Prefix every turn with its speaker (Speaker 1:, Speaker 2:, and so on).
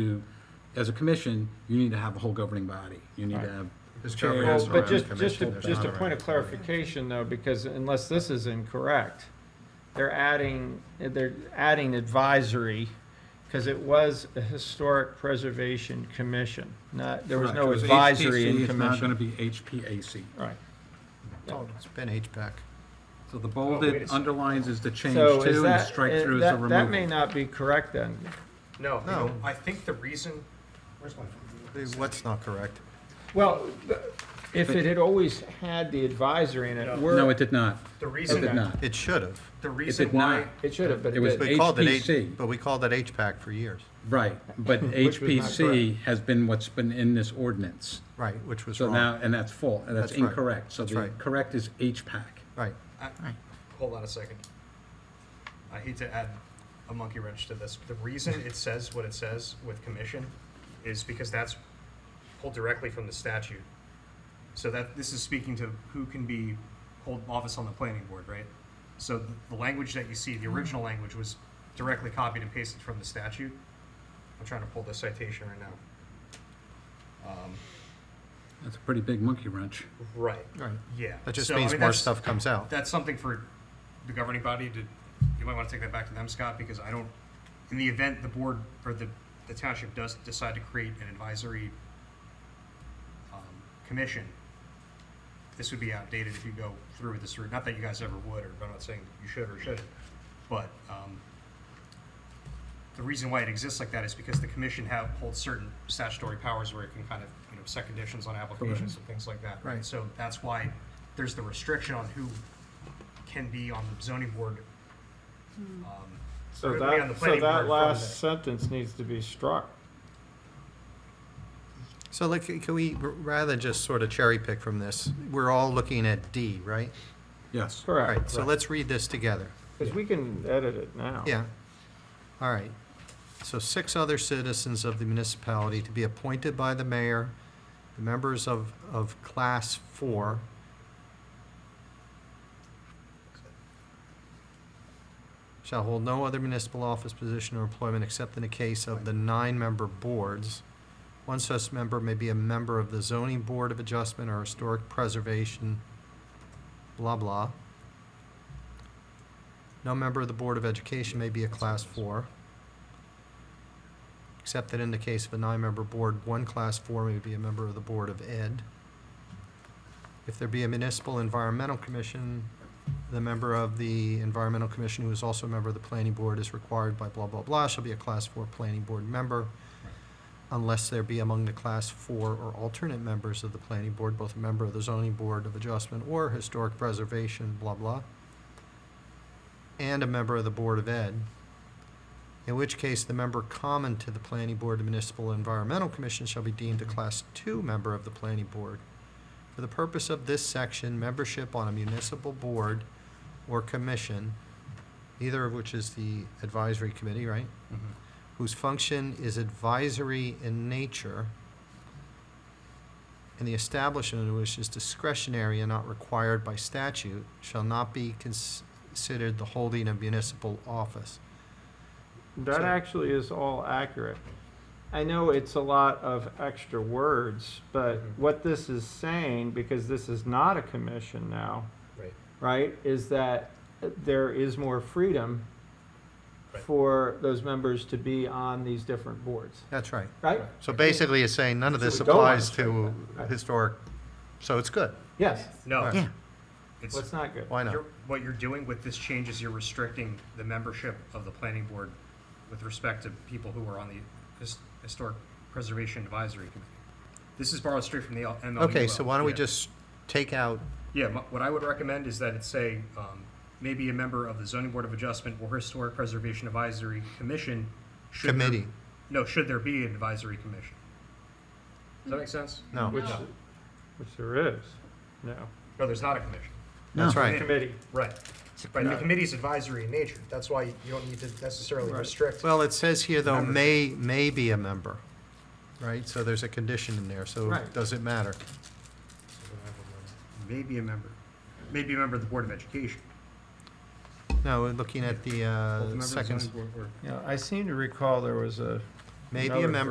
Speaker 1: to, as a commission, you need to have a whole governing body. You need to have.
Speaker 2: This
Speaker 1: chair,
Speaker 2: governing
Speaker 3: Well,
Speaker 2: Yes,
Speaker 3: Oh, but
Speaker 2: around
Speaker 3: just,
Speaker 2: the
Speaker 3: just, a-
Speaker 2: commission,
Speaker 3: just a
Speaker 2: not
Speaker 3: point
Speaker 2: around
Speaker 3: of
Speaker 2: the
Speaker 3: clarification though, because unless this is incorrect, they're adding, they're adding advisory, because it was a historic preservation commission, not, there was no
Speaker 1: Correct. It
Speaker 3: advisory
Speaker 1: HPC,
Speaker 3: in
Speaker 1: It's now gonna
Speaker 3: commission.
Speaker 1: be HPAC.
Speaker 3: Right.
Speaker 2: Oh, it's been HPAC.
Speaker 1: So the
Speaker 4: Oh, wait a
Speaker 1: bolded
Speaker 4: second.
Speaker 1: underlines is the change
Speaker 3: So is
Speaker 1: to and
Speaker 3: that,
Speaker 1: strike
Speaker 3: eh,
Speaker 1: through is the
Speaker 3: that, that may
Speaker 1: removal.
Speaker 3: not be correct then.
Speaker 4: No,
Speaker 2: No.
Speaker 4: no, I think the reason,
Speaker 2: What's not correct?
Speaker 3: Well, if it had always had the advisory in
Speaker 4: No.
Speaker 1: No,
Speaker 3: it, we're,
Speaker 1: it did not.
Speaker 4: the
Speaker 1: It did
Speaker 4: reason,
Speaker 1: not.
Speaker 2: It should have.
Speaker 4: the reason
Speaker 1: did
Speaker 4: why,
Speaker 1: not.
Speaker 3: it should have, but
Speaker 1: It
Speaker 3: it
Speaker 1: was
Speaker 3: didn't.
Speaker 2: We called it H,
Speaker 1: HPC.
Speaker 2: but we called it HPAC for years.
Speaker 1: Right, but
Speaker 3: Which was not
Speaker 1: HPC has been what's been in this ordinance.
Speaker 2: Right, which was
Speaker 1: So
Speaker 2: wrong.
Speaker 1: now, and that's full, and that's
Speaker 2: That's right.
Speaker 1: incorrect. So
Speaker 2: That's
Speaker 1: the
Speaker 2: right.
Speaker 1: correct is HPAC.
Speaker 2: Right.
Speaker 4: I- uh, hold on a second. I hate to add a monkey wrench to this. The reason it says what it says with commission is because that's pulled directly from the statute. So that, this is speaking to who can be, hold office on the planning board, right? So the- the language that you see, the original language was directly copied and pasted from the statute. I'm trying to pull the citation right now. Um,
Speaker 1: That's a pretty big monkey wrench.
Speaker 4: Right.
Speaker 2: Right.
Speaker 4: Yeah.
Speaker 2: That just
Speaker 4: So, I
Speaker 2: means
Speaker 4: mean,
Speaker 2: more
Speaker 4: that's-
Speaker 2: stuff comes out.
Speaker 4: That's something for the governing body to, you might want to take that back to them, Scott, because I don't, in the event the board or the, the township does decide to create an advisory um, commission, this would be outdated if you go through with this route. Not that you guys ever would, or I'm not saying you should or shouldn't, but, um, the reason why it exists like that is because the commission have, holds certain statutory powers where it can kind of, you know, set conditions on applications and things like that.
Speaker 2: Right.
Speaker 4: So that's why there's the restriction on who can be on the zoning board. um,
Speaker 3: So
Speaker 4: or be on
Speaker 3: that, so
Speaker 4: the planning board
Speaker 3: that
Speaker 4: from
Speaker 3: last
Speaker 4: the-
Speaker 3: sentence needs to be struck.
Speaker 2: So like, can we, rather than just sort of cherry pick from this, we're all looking at D, right?
Speaker 1: Yes.
Speaker 2: All
Speaker 3: Correct.
Speaker 2: right, so let's read this together.
Speaker 3: Because we can edit it now.
Speaker 2: Yeah. All right. So six other citizens of the municipality to be appointed by the mayor, the members of, of class four. Shall hold no other municipal office position or employment except in the case of the nine-member boards. One such member may be a member of the zoning board of adjustment or historic preservation, blah, blah. No member of the Board of Education may be a Class Four, except that in the case of a nine-member board, one Class Four may be a member of the Board of Ed. If there be a municipal environmental commission, the member of the environmental commission who is also a member of the planning board is required by blah, blah, blah, shall be a Class Four planning board member, unless there be among the Class Four or alternate members of the planning board, both a member of the zoning board of adjustment or historic preservation, blah, blah and a member of the Board of Ed, in which case the member common to the Planning Board of Municipal Environmental Commission shall be deemed a Class Two member of the Planning Board. For the purpose of this section, membership on a municipal board or commission, either of which is the advisory committee, right?
Speaker 4: Mhm.
Speaker 2: whose function is advisory in nature, and the establishment of which is discretionary and not required by statute, shall not be cons- considered the holding of municipal office.
Speaker 3: That
Speaker 2: So-
Speaker 3: actually is all accurate. I know it's a lot of extra words, but
Speaker 4: Mhm.
Speaker 3: what this is saying, because this is not a commission now,
Speaker 4: Right.
Speaker 3: right, is that there is more freedom
Speaker 4: Right.
Speaker 3: for those members to be on these different boards,
Speaker 2: That's right.
Speaker 3: right?
Speaker 2: So basically, it's saying none of
Speaker 3: So
Speaker 2: this
Speaker 3: we don't want
Speaker 2: applies
Speaker 3: to
Speaker 2: to
Speaker 3: that. Oh.
Speaker 2: historic, so it's good.
Speaker 3: Yes,
Speaker 4: No.
Speaker 2: Yeah.
Speaker 4: It's,
Speaker 3: what's not good?
Speaker 2: Why not?
Speaker 4: you're- what you're doing with this change is you're restricting the membership of the planning board with respect to people who are on the his- Historic Preservation Advisory Committee. This is borrowed straight from the L- MLUL.
Speaker 2: Okay, so why don't we
Speaker 4: Yeah.
Speaker 2: just take out,
Speaker 4: Yeah, m- what I would recommend is that it say, um, maybe a member of the zoning board of adjustment or historic preservation advisory commission. should there-
Speaker 2: Committee.
Speaker 4: No, should there be an advisory commission? Does that make sense?
Speaker 2: no,
Speaker 3: Which,
Speaker 4: No.
Speaker 3: which there is, no.
Speaker 4: No, there's not a commission.
Speaker 2: that's
Speaker 1: No.
Speaker 2: right.
Speaker 3: Committee,
Speaker 4: Right. Right, the committee's advisory in nature. That's why you don't need to necessarily
Speaker 3: Right.
Speaker 4: restrict.
Speaker 2: Well, it says here, though, may,
Speaker 4: Membership.
Speaker 2: may be a member, right? So there's a condition in there, so
Speaker 3: Right.
Speaker 2: does it matter?
Speaker 4: Maybe a member, maybe a member of the Board of Education.
Speaker 2: No, we're looking at the
Speaker 4: Both a member
Speaker 2: uh,
Speaker 4: of the
Speaker 2: second,
Speaker 4: zoning board or-
Speaker 3: you know, I seem to recall there was a.
Speaker 2: maybe a member